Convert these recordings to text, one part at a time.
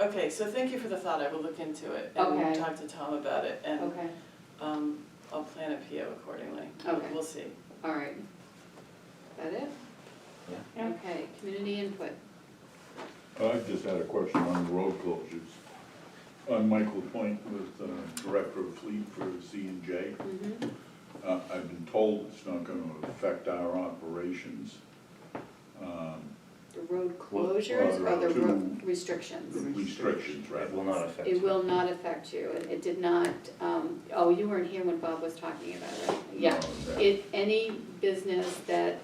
Okay, so thank you for the thought, I will look into it and Okay. talk to Tom about it and, Okay, um, I'll plan a PO accordingly. We'll- Okay. We'll see. all right. That it? Yeah. Okay, community input. I just had a question on road closures. I'm Michael Point with the Director of Fleet for C and J. Mhm. Uh, I've been told it's not gonna affect our operations. Um, The road closures or the road road to- the restrictions? Restrictions, right? It will not affect. It will not affect you. It it did not, um, oh, you weren't here when Bob was talking about it. Yeah. No, that- It, any business that,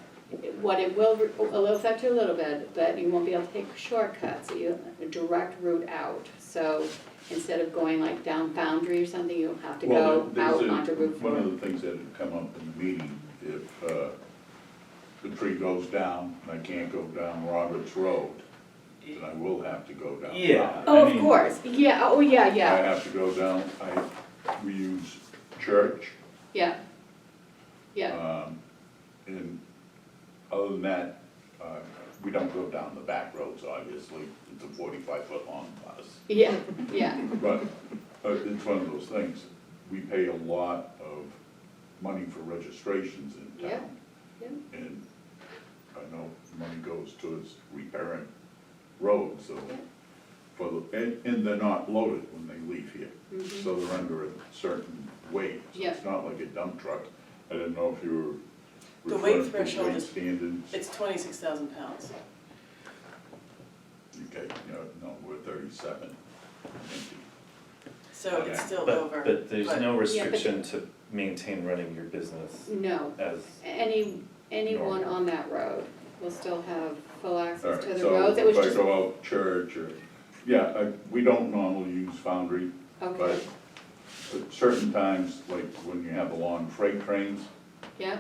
what it will, it'll affect you a little bit, but you won't be able to take shortcuts, you, a direct route out. So instead of going like down Foundry or something, you'll have to Well, go there- out there's a- onto Route One Four. of the things that had come up in the meeting, if uh, the tree goes down and I can't go down Roberts Road, then I will have to go down. Yeah. Oh, I of mean- course, yeah, oh, yeah, I yeah, have to go down, I, we use church, yeah. Yeah, um, and other than that, uh, we don't go down the back roads, obviously, it's a forty-five foot long bus. yeah, yeah, But, uh, it's one of those things, we pay a lot of money for registrations in Yeah, town. yeah. And I know money goes towards repairing roads, so, for, the- and, and they're not loaded when they leave here. Mhm. So they're under a certain weight, so Yeah. it's not like a dump truck. I didn't know if you were The weight referring to threshold weight is- standards. It's twenty-six thousand pounds. Okay, no, no, we're thirty-seven. Thank you. So it's Okay. still But- over. But there's but- no Yeah, but- restriction to maintain running your business no. as, Any, anyone Normal. on that road will still have full All access right, to the so roads. It was if I just, go out church or, yeah, I, we don't normally use Foundry, okay, but at certain times, like when you have the long freight trains, yeah,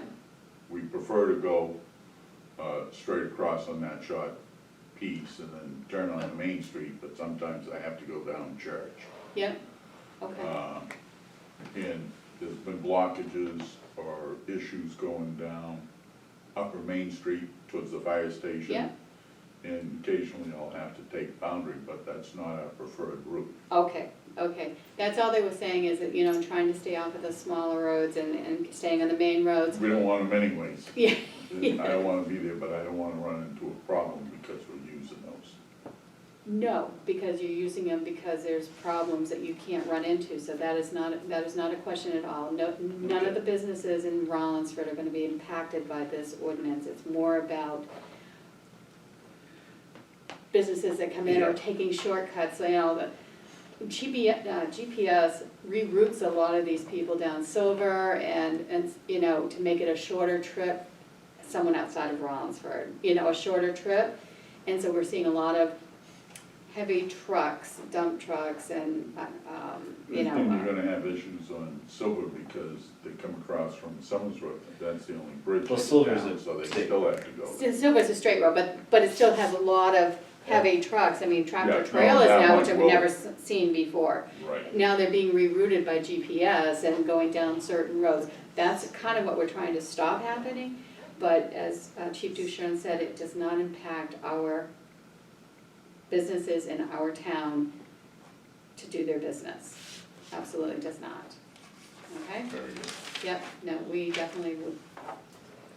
we prefer to go, uh, straight across on that short piece and then turn on the main street, but sometimes I have to go down church. yeah, okay, Um, And there's been blockages or issues going down Upper Main Street towards the fire station. Yeah. And occasionally I'll have to take Boundary, but that's not our preferred route. okay, okay. That's all they were saying is that, you know, trying to stay off of the smaller roads and, and staying on the main roads. We don't want them anyways. Yeah, And I don't wanna be there, but I don't wanna run into a problem because we're using those. no, because you're using them because there's problems that you can't run into, so that is not, that is not a question at all. No, none of the businesses in Rollinsford are gonna be impacted by this ordinance. It's more about businesses that come in are Yeah. taking shortcuts, you know, the GPS, uh, GPS reroutes a lot of these people down Silver and, and, you know, to make it a shorter trip, someone outside of Rollinsford, you know, a shorter trip. And so we're seeing a lot of heavy trucks, dump trucks and, uh, um, you know. And you're gonna have issues on Silver because they come across from Summers Road, that's the only bridge. Well, in Silver's town, a So they state- still have to go. uh, Still- Still goes a straight road, but, but it still has a lot of heavy trucks, I mean Yeah, tractor no, trailers that now, one which I've will- never s- seen before. Right. Now they're being rerouted by GPS and going down certain roads. That's kind of what we're trying to stop happening, but as uh, Chief Duchon said, it does not impact our businesses in our town to do their business. Absolutely does not. Okay? Very good. Yep, no, we definitely would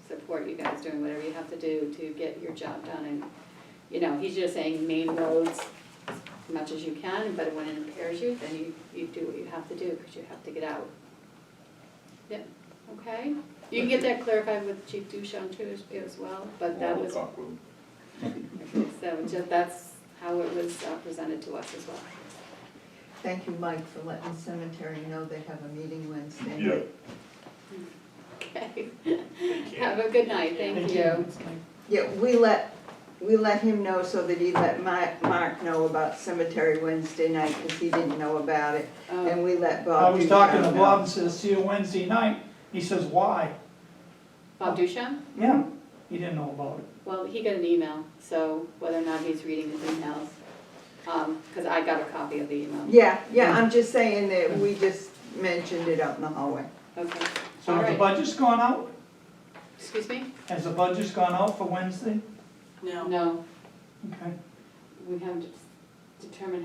support you guys doing whatever you have to do to get your job done and, you know, he's just saying main roads as much as you can, but when it impairs you, then you, you do what you have to do, because you have to get out. Yep, okay, you can get that clarified with Chief Duchamp too as- as well, but that We'll was, talk with them. so just, that's how it was uh, presented to us as well. Thank you, Mike, for letting Cemetery know they have a meeting Wednesday. Yeah. Okay, have a good night, thank you. Yeah, we let, we let him know so that he let Mi- Mark know about Cemetery Wednesday night, because he didn't know about it. Um, And we let Bob. I was Duchamp Oh, talking to know. Bob and says, see you Wednesday night. He says, why? Bob Duchamp? Yeah, he didn't know about it. Well, he got an email, so whether or not he's reading his emails, because I got a copy of the email. Yeah, yeah, I'm just saying that we just mentioned it out in the hallway. Okay, So has the Alright. budget's gone out? excuse me? Has the budget's gone out for Wednesday? No. No, Okay. we haven't determined